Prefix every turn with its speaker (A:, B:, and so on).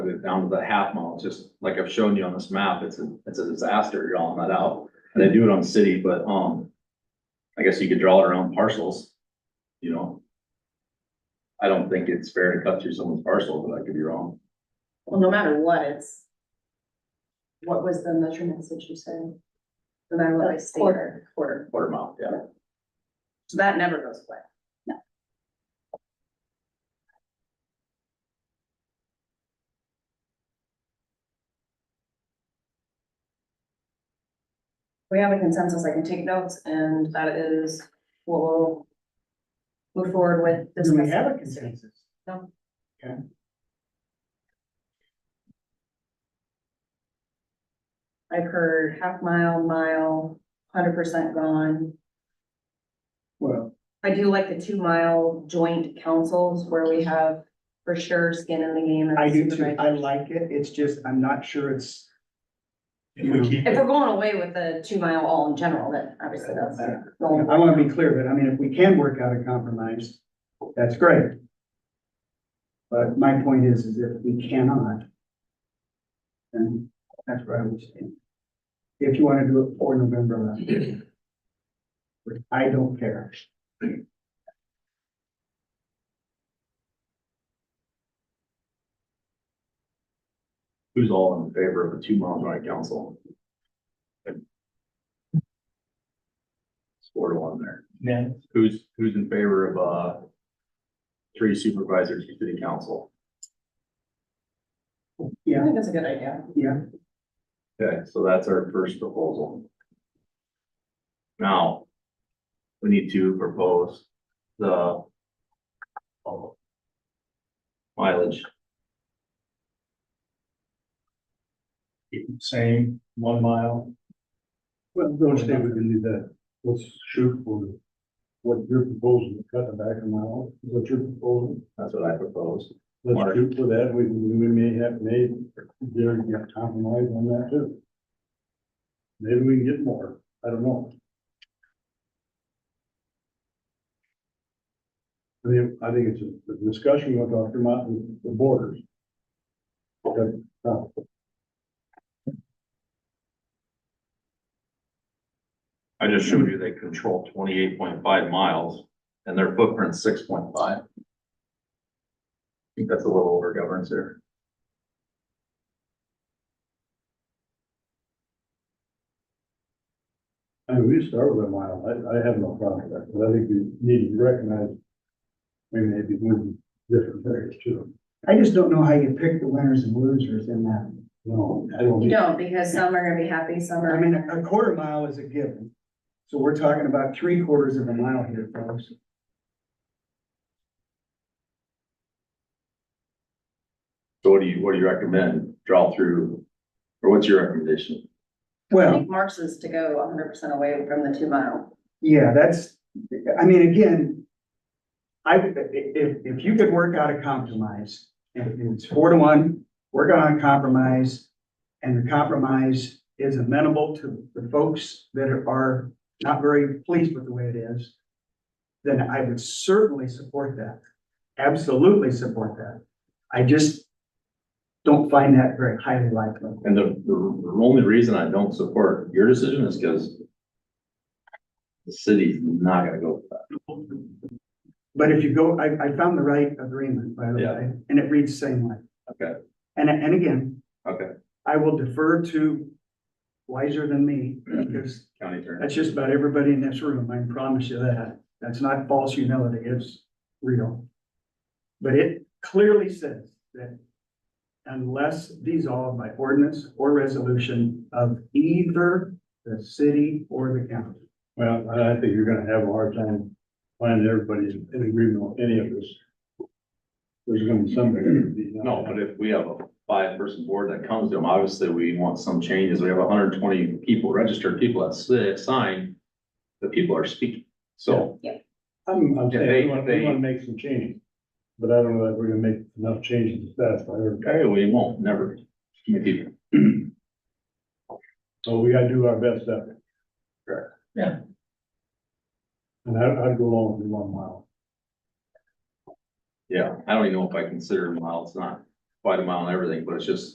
A: it down to the half mile, It's just like I've shown you on this map, it's a, it's a disaster drawing that out. And they do it on city, but, um, I guess you could draw it around parcels, you know? I don't think it's fair to cut through someone's parcel, but I could be wrong.
B: Well, no matter what, it's. What was the measurements that you said? No matter what I state. Quarter. Quarter,
A: Quarter mile, yeah.
B: so that never goes away. No. We have a consensus, I can take notes, and that is, what we'll. Move forward with this.
C: Do we have a consensus?
B: No.
C: Okay.
B: I've heard half mile, mile, hundred percent gone.
C: Well,
B: I do like the two mile joint councils where we have for sure skin in the game. as
C: I do too.
B: supervisors.
C: I like it. It's just, I'm not sure it's.
D: If we keep,
B: If we're going away with the two mile all in general, then obviously that's.
C: I
B: the only-
C: want to be clear, but I mean, if we can work out a compromise, that's great. But my point is, is if we cannot, then that's where I would stand. If you want to do it for November eleventh. I don't care.
A: Who's all in favor of a two mile joint council? It's Four to one there.
D: yeah,
A: Who's, who's in favor of, uh, three supervisors to city council?
B: I think that's a good idea.
C: Yeah,
A: Okay, so that's our first proposal. Now, we need to propose the oh, mileage.
D: keep it same, one mile.
E: Well, don't stand we can do that. Let's shoot for what you're proposing, cut it back a mile, is what you're proposing.
A: That's what I propose. Mark.
E: Let's shoot for that. We, we may have made, there, you have compromise on that too. Maybe we can get more. I don't know. I mean, I think it's a a discussion with Dr. Martin, the borders. Okay, now,
A: I just showed you they control twenty-eight point five miles and their footprint's six point five. I think that's a little over governance there.
E: I mean, we start with a mile, I, I have no problem with that, but I think we need to recognize we may be moving different areas too.
C: I just don't know how you pick the winners and losers in that.
E: No, I don't.
B: You don't, because some are gonna be happy, some
C: I
B: are.
C: mean, a quarter mile is a given. So we're talking about three quarters of a mile here, folks.
A: So what do you, what do you recommend? Draw through, or what's your recommendation?
B: I
C: Well,
B: think Mark's is to go hundred percent away from the two mile.
C: yeah, that's, I mean, again, I, would- i- if, if you could work out a compromise, and and it's four to one, work on a compromise, and the compromise is amenable to the folks that are not very pleased with the way it is, then I would certainly support that. Absolutely support that. I just don't find that very highly likely.
A: And the, the the only reason I don't support your decision is because the city's not gonna go for that.
C: But if you go, I, I found the right agreement, by the
A: Yeah.
C: way, and it reads the same way.
A: Okay.
C: And, and again.
A: Okay.
C: I will defer to wiser than me, because
A: County attorney.
C: that's just about everybody in this room, I can promise you that. That's not false humility, it's real. But it clearly says that unless dissolved by ordinance or resolution of either the city or the county.
E: Well, I I think you're gonna have a hard time finding everybody's in agreement on any of this. There's gonna be somebody. that'd be not-
A: No, but if we have a five-person board that comes to them, obviously we want some changes. We have hundred and twenty people, registered people that si- sign. The people are speaking, so
E: I'm, I'm
A: They-
E: saying, we wanna,
A: they-
E: we wanna make some changes, but I don't know that we're gonna make enough changes to satisfy everybody.
A: okay, we won't, never. Maybe
E: So we gotta do our best effort.
A: Correct. Yeah.
E: And I, I'd go along with the one mile.
A: Yeah, I don't even know if I consider miles, not quite a mile and everything, but it's just